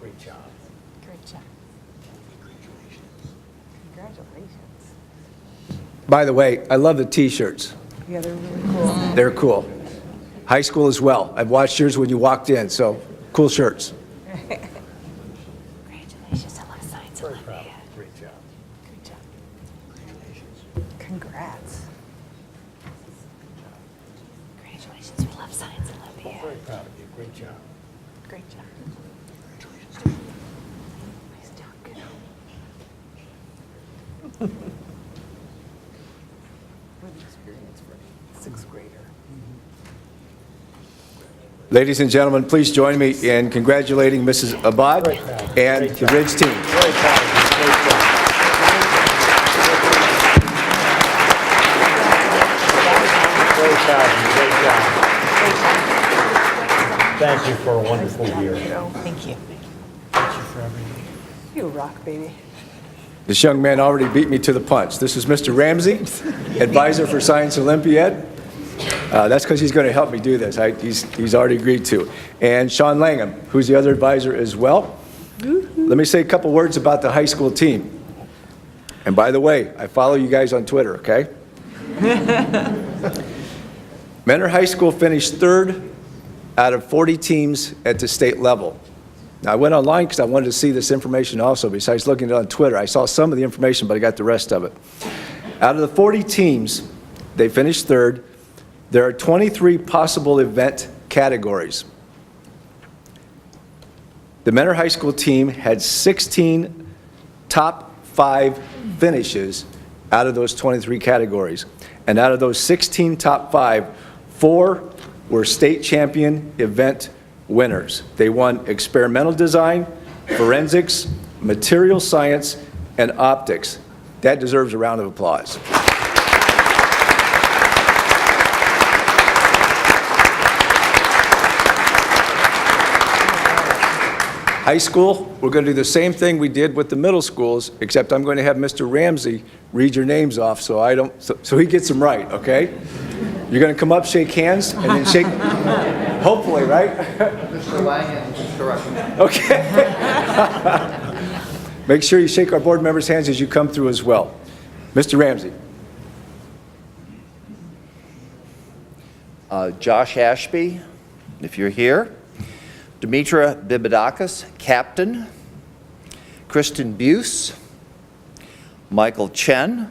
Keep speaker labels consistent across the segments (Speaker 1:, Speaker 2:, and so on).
Speaker 1: Great job.
Speaker 2: Great job. Congratulations.
Speaker 1: By the way, I love the T-shirts.
Speaker 2: Yeah, they're really cool.
Speaker 1: They're cool. High school as well. I've watched yours when you walked in, so cool shirts.
Speaker 2: Congratulations, I love science, I love math.
Speaker 1: Great job.
Speaker 2: Good job. Congrats. Congratulations, we love science, I love math.
Speaker 1: proud of you. Great job.
Speaker 2: Great job. Nice job, good. What an experience for a sixth grader.
Speaker 1: Ladies and gentlemen, please join me in congratulating Mrs. Abad and the Ridge team.
Speaker 3: Great job, great job. Thank you for a wonderful year.
Speaker 2: Thank you. You rock, baby.
Speaker 1: This young man already beat me to the punch. This is Mr. Ramsey, advisor for Science Olympiad. Uh, That's because he's going to help me do this. I- He's he's already agreed to. And Sean Langham, who's the other advisor as well. Let me say a couple words about the high school team. And by the way, I follow you guys on Twitter, okay? Mentor High School finished third out of 40 teams at the state level. Now, I went online because I wanted to see this information also, besides looking at it on Twitter. I saw some of the information, but I got the rest of it. Out of the 40 teams, they finished third. There are 23 possible event categories. The Mentor High School team had 16 top five finishes out of those 23 categories. And out of those 16 top five, four were state champion event winners. They won experimental design, forensics, material science, and optics. That deserves a round of applause. High school, we're going to do the same thing we did with the middle schools, except I'm going to have Mr. Ramsey read your names off so I don't, so so he gets them right, okay? You're going to come up, shake hands, and then shake, hopefully, right?
Speaker 4: Mr. Langan is correct.
Speaker 1: Okay. Make sure you shake our board members' hands as you come through as well. Mr. Ramsey,
Speaker 4: Uh, Josh Ashby, if you're here. Demetra Bibidakis, captain. Kristen Buse. Michael Chen.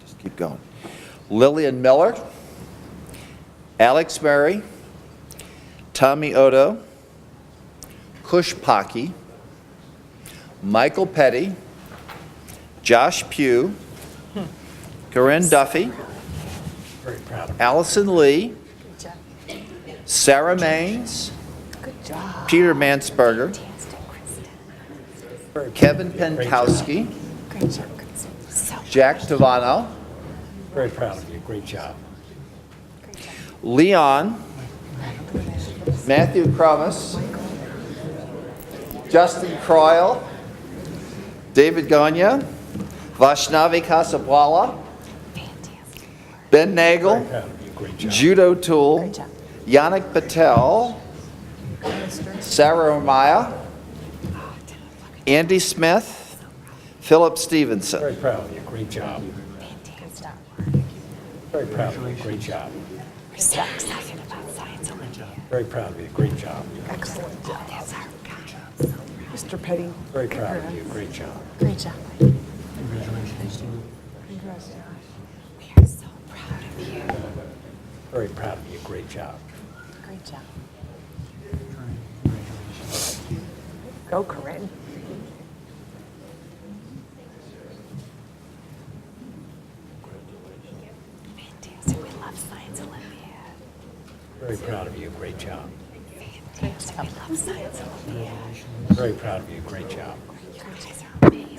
Speaker 4: Just Keep going. Lillian Miller. Alex Murray. Tommy Odo. Kush Pocky. Michael Petty. Josh Pugh, Corinne Duffy,
Speaker 3: Very proud of
Speaker 4: Allison Lee,
Speaker 2: Good job.
Speaker 4: Sarah Maines,
Speaker 2: Good job.
Speaker 4: Peter Mansberger,
Speaker 2: Fantastic, Kristen.
Speaker 4: Kevin Pentowski,
Speaker 2: Great job, Kristen. So
Speaker 4: Jack Tavano,
Speaker 3: you, very proud of you, great job.
Speaker 2: great job.
Speaker 4: Leon, Matthew Crumis, Justin Croyle, David Gagne, Vashnavi Kasabwala,
Speaker 2: Fantastic.
Speaker 4: Ben
Speaker 3: Very
Speaker 4: Nagel,
Speaker 3: proud of you, great job.
Speaker 4: Jude O'Toole,
Speaker 2: Great job.
Speaker 4: Yannick Patel, Sarah Maya, Andy Smith, Philip Stevenson.
Speaker 3: Very proud of you, great job.
Speaker 2: Fantastic.
Speaker 3: Very proud of you, great job.
Speaker 2: We're so excited about Science Olympiad.
Speaker 3: Very proud of you, great job.
Speaker 2: Excellent job. That's our guy. Mr. Petty.
Speaker 3: Very proud of you, great job.
Speaker 2: Great job. Congratulations. We are so proud of you.
Speaker 3: Very proud of you, great job.
Speaker 2: Great job. Go, Corinne. Fantastic. We love Science Olympiad.
Speaker 3: Very proud of you, great job.
Speaker 2: Fantastic. We love Science Olympiad.
Speaker 3: Very proud of you, great job.
Speaker 2: You guys are amazing.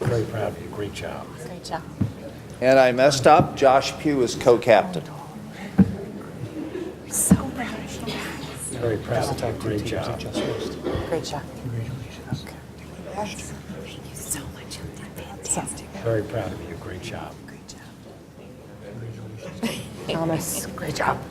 Speaker 3: Very proud of you, great job.
Speaker 2: Great job.
Speaker 4: And I messed up, Josh Pugh is co-captain.
Speaker 2: We're so proud of you guys.
Speaker 3: Very proud of you, great job.
Speaker 2: Great job. Congratulations. Thank you so much. You did fantastic.
Speaker 3: Very proud of you, great job.
Speaker 2: Great job. Thomas, great job.